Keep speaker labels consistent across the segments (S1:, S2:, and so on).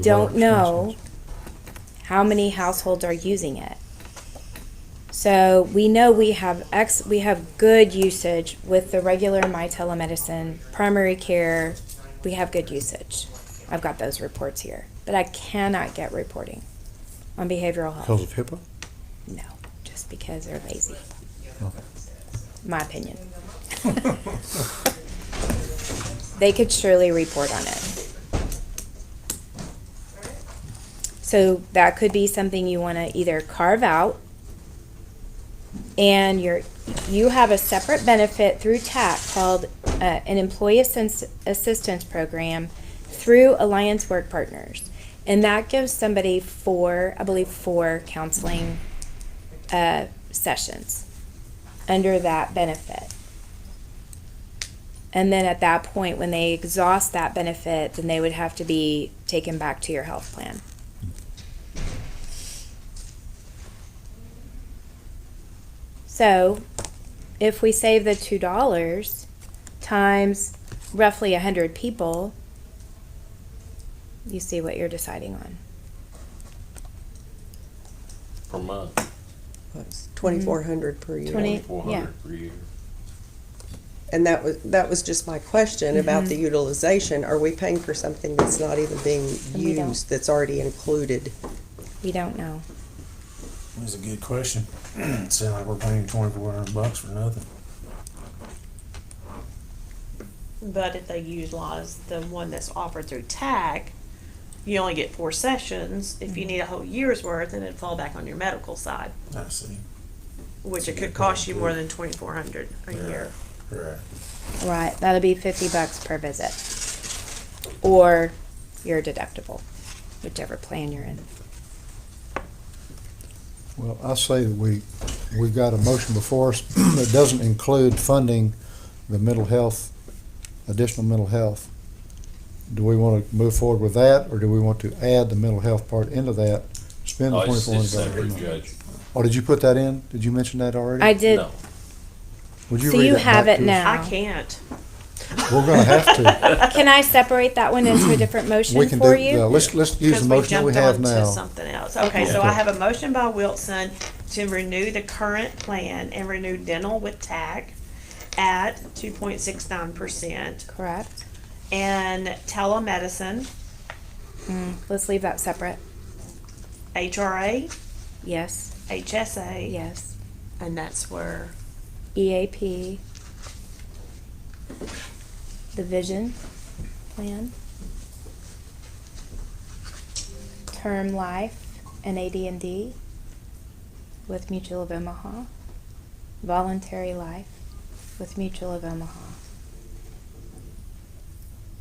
S1: don't
S2: Water
S1: know how many households are using it. So we know we have ex, we have good usage with the regular my telemedicine, primary care, we have good usage. I've got those reports here, but I cannot get reporting on behavioral
S2: Because
S1: health.
S2: of HIPAA?
S1: No, just because they're lazy,
S2: Okay.
S1: my opinion. They could surely report on it. So that could be something you want to either carve out and you're, you have a separate benefit through TAC called uh, an employee assistance, assistance program through Alliance Work Partners. And that gives somebody four, I believe, four counseling uh, sessions under that benefit. And then at that point, when they exhaust that benefit, then they would have to be taken back to your health plan. So if we save the two dollars times roughly a hundred people, you see what you're deciding on.
S3: per month,
S4: Twenty-four hundred per year.
S1: Twenty-
S3: four
S1: Yeah.
S3: hundred per year.
S4: And that was, that was just my question about
S1: Mm-hmm.
S4: the utilization. Are we paying for something that's not even being
S1: And we don't.
S4: used, that's already included?
S1: We don't know.
S5: That's a good question. It sounds like we're paying twenty-four hundred bucks for nothing.
S6: But if they utilize the one that's offered through TAG, you only get four sessions. If
S2: Mm-hmm.
S6: you need a whole year's worth, then it'd fall back on your medical side,
S5: I see.
S6: which it
S5: Yeah,
S6: could cost you more
S5: yeah.
S6: than twenty-four hundred a year.
S5: Right.
S1: Right, that'll be fifty bucks per visit. Or your deductible, whichever plan you're in.
S2: Well, I say that we, we've got a motion before us that doesn't include funding the mental health, additional mental health. Do we want to move forward with that, or do we want to add the mental health part into that? Spend the
S3: Oh, it's-
S2: twenty-four
S3: it's
S2: hundred dollars.
S3: separate, Judge.
S2: Oh, did you put that in? Did you mention that already?
S1: I did,
S3: No,
S2: Would you
S1: so
S2: read
S1: you
S2: that
S1: have
S2: back
S1: it
S2: to us?
S1: now.
S6: I can't.
S2: We're gonna have to.
S1: Can I separate that one into a different
S2: We
S1: motion
S2: can
S1: for
S2: do, yeah,
S1: you?
S2: let's, let's use
S6: because
S2: the motion that we
S6: jumped
S2: have
S6: on to
S2: now.
S6: Something else. Okay, so
S2: Okay.
S6: I have a motion by Wilson to renew the current plan and renew dental with TAC at two point six nine percent
S1: Correct,
S6: and telemedicine,
S1: Mm, let's leave that separate.
S6: HRA,
S1: Yes,
S6: HSA.
S1: yes. E
S6: And that's where
S1: EAP, the vision plan, term life and AD&D with Mutual of Omaha, voluntary life with Mutual of Omaha,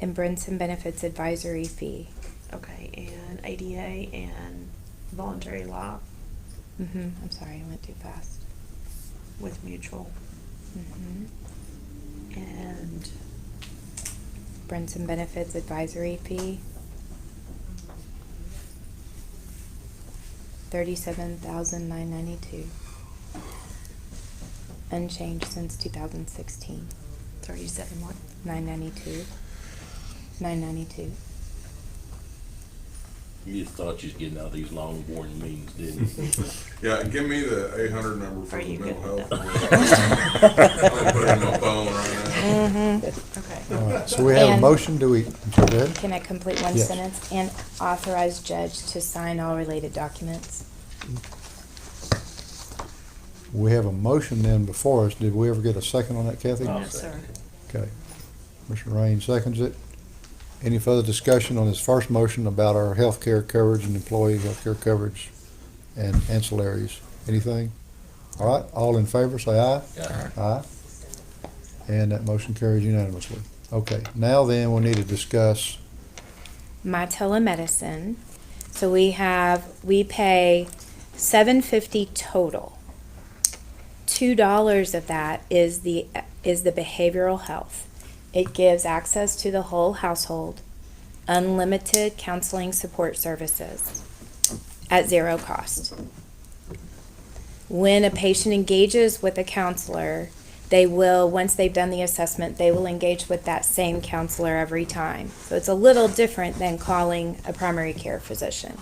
S1: and Brinson Benefits Advisory Fee.
S6: okay, and ADA and voluntary life
S1: hmm I'm sorry, I went too fast.
S6: with mutual
S1: hmm
S6: and
S1: Brinson Benefits Advisory Fee. Thirty-seven thousand nine ninety-two. Unchanged since two thousand sixteen.
S6: thirty-seven one.
S1: Nine ninety-two. Nine ninety-two.
S3: you just thought you was getting out of these long boring meetings, didn't you?
S7: Yeah, give me the eight hundred number for
S6: Are
S7: the
S6: you
S7: mental
S6: good with
S7: health. I'll put it in my phone right
S1: Mm-hmm.
S6: Okay.
S2: All right, so we have a
S1: And-
S2: motion, do we, go ahead.
S1: Can I complete one
S2: Yes.
S1: sentence? And authorize judge to sign all related documents.
S2: We have a motion then before us. Did we ever get a second on that, Kathy?
S3: I'll
S6: Yes, sir.
S2: Okay. Mr. Raines seconds it. Any further discussion on this first motion about our health care coverage and employee health care coverage and ancillaries? Anything? All right, all in favor, say aye.
S3: Yeah.
S2: Aye. And that motion carries unanimously. Okay, now then, we need to discuss,
S1: my telemedicine. So we have we pay seven fifty total. Two dollars of that is the is the behavioral health. It gives access to the whole household, unlimited counseling support services at zero cost. When a patient engages with a counselor, They will, once they've done the assessment, they will engage with that same counselor every time. So it's a little different than calling a primary care physician.